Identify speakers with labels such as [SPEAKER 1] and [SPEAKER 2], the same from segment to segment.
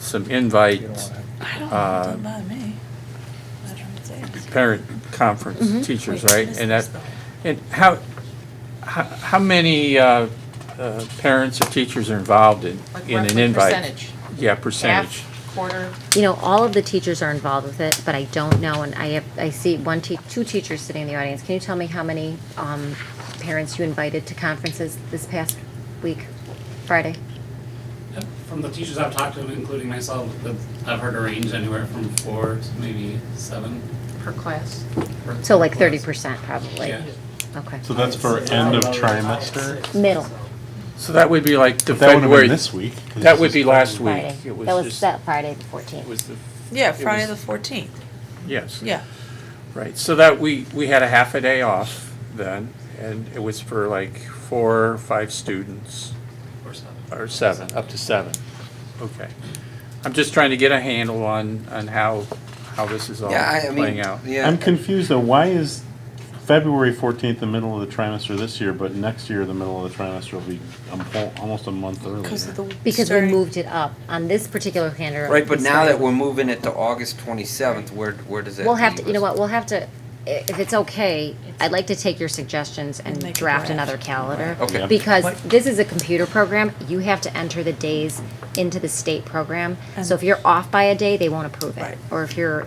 [SPEAKER 1] some invites,
[SPEAKER 2] I don't,
[SPEAKER 1] Uh,
[SPEAKER 2] doesn't bother me. I don't think.
[SPEAKER 1] parent
[SPEAKER 3] Mm-hmm.
[SPEAKER 1] conference, teachers,
[SPEAKER 2] Wait,
[SPEAKER 1] right?
[SPEAKER 2] what is
[SPEAKER 1] And
[SPEAKER 2] this
[SPEAKER 1] that, and how, how, how many, uh, uh, parents or teachers are involved in,
[SPEAKER 3] Like
[SPEAKER 1] in an
[SPEAKER 3] roughly
[SPEAKER 1] invite?
[SPEAKER 3] percentage?
[SPEAKER 1] Yeah, percentage.
[SPEAKER 3] Half, quarter,
[SPEAKER 4] You know, all of the teachers are involved with it, but I don't know, and I have, I see one te, two teachers sitting in the audience. Can you tell me how many, um, parents you invited to conferences this past week, Friday?
[SPEAKER 5] From the teachers I've talked to, including myself, that I've heard a range anywhere from four to maybe seven.
[SPEAKER 3] per class.
[SPEAKER 5] per-
[SPEAKER 4] So like
[SPEAKER 5] per
[SPEAKER 4] thirty
[SPEAKER 5] class.
[SPEAKER 4] percent probably?
[SPEAKER 5] Yeah.
[SPEAKER 4] Okay.
[SPEAKER 6] So that's for end of trimester?
[SPEAKER 4] Middle,
[SPEAKER 1] So that would be like the
[SPEAKER 6] That would have
[SPEAKER 1] February,
[SPEAKER 6] been this week. 'cause
[SPEAKER 1] that
[SPEAKER 6] this
[SPEAKER 1] would
[SPEAKER 6] is
[SPEAKER 1] be last week.
[SPEAKER 4] Friday.
[SPEAKER 1] It
[SPEAKER 4] That was
[SPEAKER 1] just-
[SPEAKER 4] that Friday the
[SPEAKER 1] It
[SPEAKER 4] fourteenth.
[SPEAKER 1] was the,
[SPEAKER 2] Yeah,
[SPEAKER 1] It
[SPEAKER 2] Friday
[SPEAKER 1] was-
[SPEAKER 2] the fourteenth,
[SPEAKER 1] yes.
[SPEAKER 2] yeah.
[SPEAKER 1] Right, so that, we, we had a half a day off then, and it was for like four, or five students,
[SPEAKER 5] Or seven.
[SPEAKER 1] or seven, up to seven. Okay. I'm just trying to get a handle on, on how, how this is all
[SPEAKER 7] Yeah, I- I
[SPEAKER 1] playing
[SPEAKER 7] mean,
[SPEAKER 1] out.
[SPEAKER 7] yeah.
[SPEAKER 6] I'm confused though, why is February fourteenth the middle of the trimester this year, but next year the middle of the trimester will be a mo- almost a month
[SPEAKER 2] Because of
[SPEAKER 6] earlier?
[SPEAKER 2] the.
[SPEAKER 4] Because we
[SPEAKER 2] starting-
[SPEAKER 4] moved it up on this particular calendar.
[SPEAKER 7] Right, but
[SPEAKER 4] we
[SPEAKER 7] now that
[SPEAKER 4] started-
[SPEAKER 7] we're moving it to August twenty-seventh, where, where does that
[SPEAKER 4] We'll have to,
[SPEAKER 7] leave
[SPEAKER 4] you know
[SPEAKER 7] us?
[SPEAKER 4] what, we'll have to, i- if it's okay, I'd like to take your suggestions
[SPEAKER 2] Make
[SPEAKER 4] and
[SPEAKER 2] a
[SPEAKER 4] draft
[SPEAKER 2] draft.
[SPEAKER 4] another calendar.
[SPEAKER 7] Okay. Yeah.
[SPEAKER 4] Because
[SPEAKER 2] What-
[SPEAKER 4] this is a computer program, you have to enter the days into the state program. So if you're off by a day, they won't approve it.
[SPEAKER 2] Right.
[SPEAKER 4] Or if you're,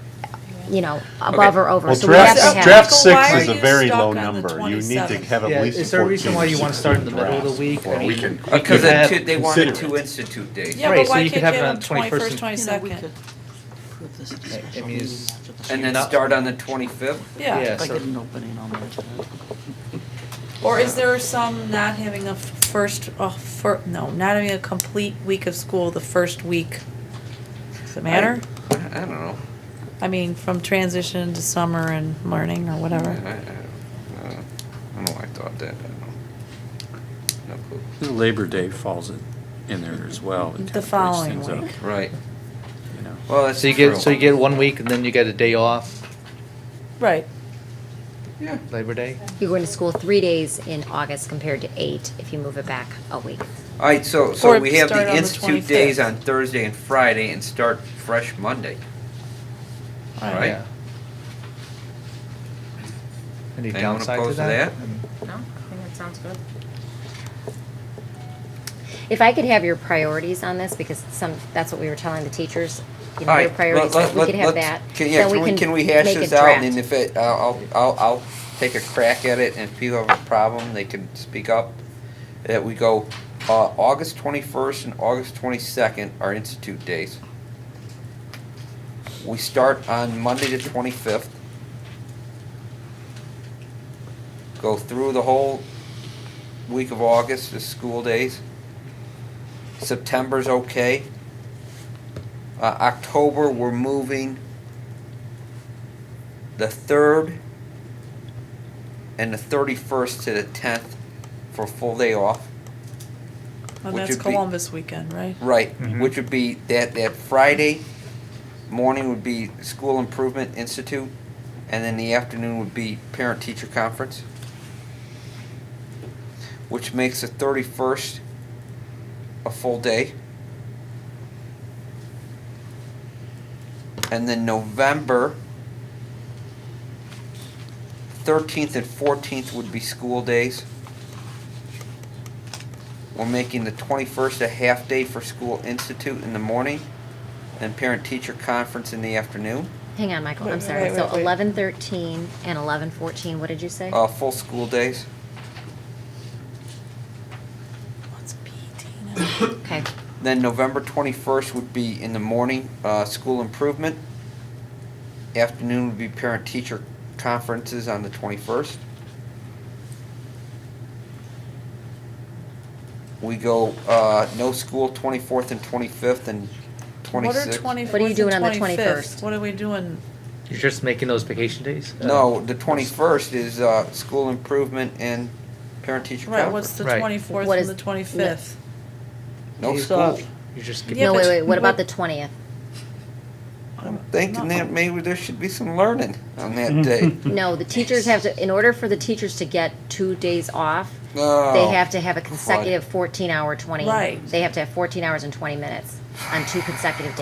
[SPEAKER 4] you know, above or over.
[SPEAKER 6] Well,
[SPEAKER 4] So we have to
[SPEAKER 6] draft,
[SPEAKER 2] Okay,
[SPEAKER 6] draft
[SPEAKER 4] have,
[SPEAKER 2] so
[SPEAKER 6] six
[SPEAKER 2] why
[SPEAKER 6] is
[SPEAKER 2] are
[SPEAKER 6] a
[SPEAKER 2] you
[SPEAKER 6] very
[SPEAKER 2] stuck
[SPEAKER 6] low
[SPEAKER 2] on the
[SPEAKER 6] number. You need to
[SPEAKER 2] 27th?
[SPEAKER 6] have at
[SPEAKER 8] Yeah,
[SPEAKER 6] least fourteen.
[SPEAKER 8] is there a reason why you
[SPEAKER 6] students
[SPEAKER 8] want to start in the middle of the
[SPEAKER 6] draft
[SPEAKER 8] week?
[SPEAKER 6] before
[SPEAKER 8] I
[SPEAKER 6] we
[SPEAKER 8] mean,
[SPEAKER 6] can-
[SPEAKER 7] Because
[SPEAKER 8] could
[SPEAKER 7] the
[SPEAKER 8] have-
[SPEAKER 7] two, they wanted
[SPEAKER 6] consider
[SPEAKER 7] two
[SPEAKER 6] it.
[SPEAKER 7] institute days.
[SPEAKER 2] Yeah,
[SPEAKER 8] Right,
[SPEAKER 2] but
[SPEAKER 8] so
[SPEAKER 2] why
[SPEAKER 8] you
[SPEAKER 2] can't
[SPEAKER 8] could
[SPEAKER 2] you
[SPEAKER 8] have it
[SPEAKER 2] have it
[SPEAKER 8] on
[SPEAKER 2] on
[SPEAKER 8] 21st
[SPEAKER 2] twenty-first,
[SPEAKER 8] and-
[SPEAKER 2] twenty-second?
[SPEAKER 8] I mean, it's-
[SPEAKER 7] And then start on the twenty-fifth?
[SPEAKER 2] Yeah,
[SPEAKER 8] so-
[SPEAKER 2] or is there some not having a first, oh, fir, no, not having a complete week of school the first week? Does it matter?
[SPEAKER 7] I I don't know.
[SPEAKER 2] I mean, from transition to summer and learning or
[SPEAKER 7] I, I,
[SPEAKER 2] whatever.
[SPEAKER 7] I don't know. I don't know why I thought that, I don't know. No clue.
[SPEAKER 1] Labor Day falls in, in there as well. It
[SPEAKER 2] The
[SPEAKER 1] kinda breaks
[SPEAKER 2] following
[SPEAKER 1] things up,
[SPEAKER 2] week.
[SPEAKER 7] Right,
[SPEAKER 1] you know.
[SPEAKER 7] well, that's
[SPEAKER 8] So you
[SPEAKER 7] true.
[SPEAKER 8] get, so you get one week and then you get a day off,
[SPEAKER 2] Right,
[SPEAKER 8] Labor Day?
[SPEAKER 4] you're going to school three days in August compared to eight if you move it back a week.
[SPEAKER 7] Alright, so, so
[SPEAKER 2] Or
[SPEAKER 7] we have
[SPEAKER 2] start on
[SPEAKER 7] the
[SPEAKER 2] the
[SPEAKER 7] institute days
[SPEAKER 2] 25th.
[SPEAKER 7] on Thursday and Friday and start fresh Monday,
[SPEAKER 2] right.
[SPEAKER 7] right?
[SPEAKER 8] Yeah. Any
[SPEAKER 7] Anyone
[SPEAKER 8] downside to
[SPEAKER 7] opposed to
[SPEAKER 8] that?
[SPEAKER 3] No, I think that sounds good.
[SPEAKER 4] If I could have your priorities on this, because some, that's what we were telling the teachers, you know,
[SPEAKER 7] All
[SPEAKER 4] your
[SPEAKER 7] right,
[SPEAKER 4] priorities,
[SPEAKER 7] let-
[SPEAKER 4] if we
[SPEAKER 7] let-
[SPEAKER 4] could have
[SPEAKER 7] let's-
[SPEAKER 4] that.
[SPEAKER 7] Can, yeah,
[SPEAKER 4] then
[SPEAKER 7] can we, can we hash
[SPEAKER 4] make a
[SPEAKER 7] this out,
[SPEAKER 4] draft.
[SPEAKER 7] and if it, I'll, I'll- I'll, I'll take a crack at it, and if people have a problem, they can speak up. That we go, uh, August twenty-first and August twenty-second are institute days. We start on Monday the twenty-fifth. Go through the whole week of August, the school days. September's okay. Uh, October, we're moving the third and the thirty-first to the tenth for full day off.
[SPEAKER 2] And
[SPEAKER 7] Which
[SPEAKER 2] that's
[SPEAKER 7] would be-
[SPEAKER 2] Columbus weekend, right?
[SPEAKER 7] Right,
[SPEAKER 8] Mhm.
[SPEAKER 7] which would be that, that Friday morning would be School Improvement Institute, and then the afternoon would be Parent Teacher Conference, which makes the thirty-first a full day. And then November thirteenth and fourteenth would be school days. We're making the 21st a half day for School Institute in the morning and Parent Teacher Conference in the afternoon.
[SPEAKER 4] Hang on, Michael, I'm
[SPEAKER 2] Wait,
[SPEAKER 4] sorry.
[SPEAKER 2] wait,
[SPEAKER 4] So
[SPEAKER 2] wait, wait.
[SPEAKER 4] eleven thirteen and eleven fourteen, what did you say?
[SPEAKER 7] Uh, full school days.
[SPEAKER 2] What's PT now?
[SPEAKER 4] Okay,
[SPEAKER 7] Then November 21st would be in the morning, uh, School Improvement. Afternoon would be Parent Teacher Conferences on the 21st. We go uh, no school 24th and 25th and 26th.
[SPEAKER 2] What are twenty-fourth
[SPEAKER 4] What are you doing on the
[SPEAKER 2] and
[SPEAKER 4] 21st?
[SPEAKER 2] twenty-fifth? What are we doing?
[SPEAKER 8] You're just making those vacation days? Uh,
[SPEAKER 7] No, the twenty-first is, uh, school improvement and parent-teacher
[SPEAKER 2] Right, what's
[SPEAKER 7] conference.
[SPEAKER 2] the
[SPEAKER 8] Right.
[SPEAKER 2] twenty-fourth
[SPEAKER 4] What
[SPEAKER 2] and
[SPEAKER 4] is-
[SPEAKER 2] the twenty-fifth?
[SPEAKER 7] No
[SPEAKER 8] Days
[SPEAKER 7] school.
[SPEAKER 8] off. You're just
[SPEAKER 2] Yeah,
[SPEAKER 4] no,
[SPEAKER 8] giving,
[SPEAKER 2] but
[SPEAKER 4] wait, wait, what about
[SPEAKER 2] what-
[SPEAKER 4] the twentieth?
[SPEAKER 7] I'm thinking that maybe there should be some learning on that day.
[SPEAKER 4] No, the teachers have to, in order for the teachers to get two days off, they
[SPEAKER 7] No.
[SPEAKER 4] have to have a consecutive fourteen hour twenty.
[SPEAKER 2] Right.
[SPEAKER 4] They have to have fourteen hours and twenty minutes on two consecutive days.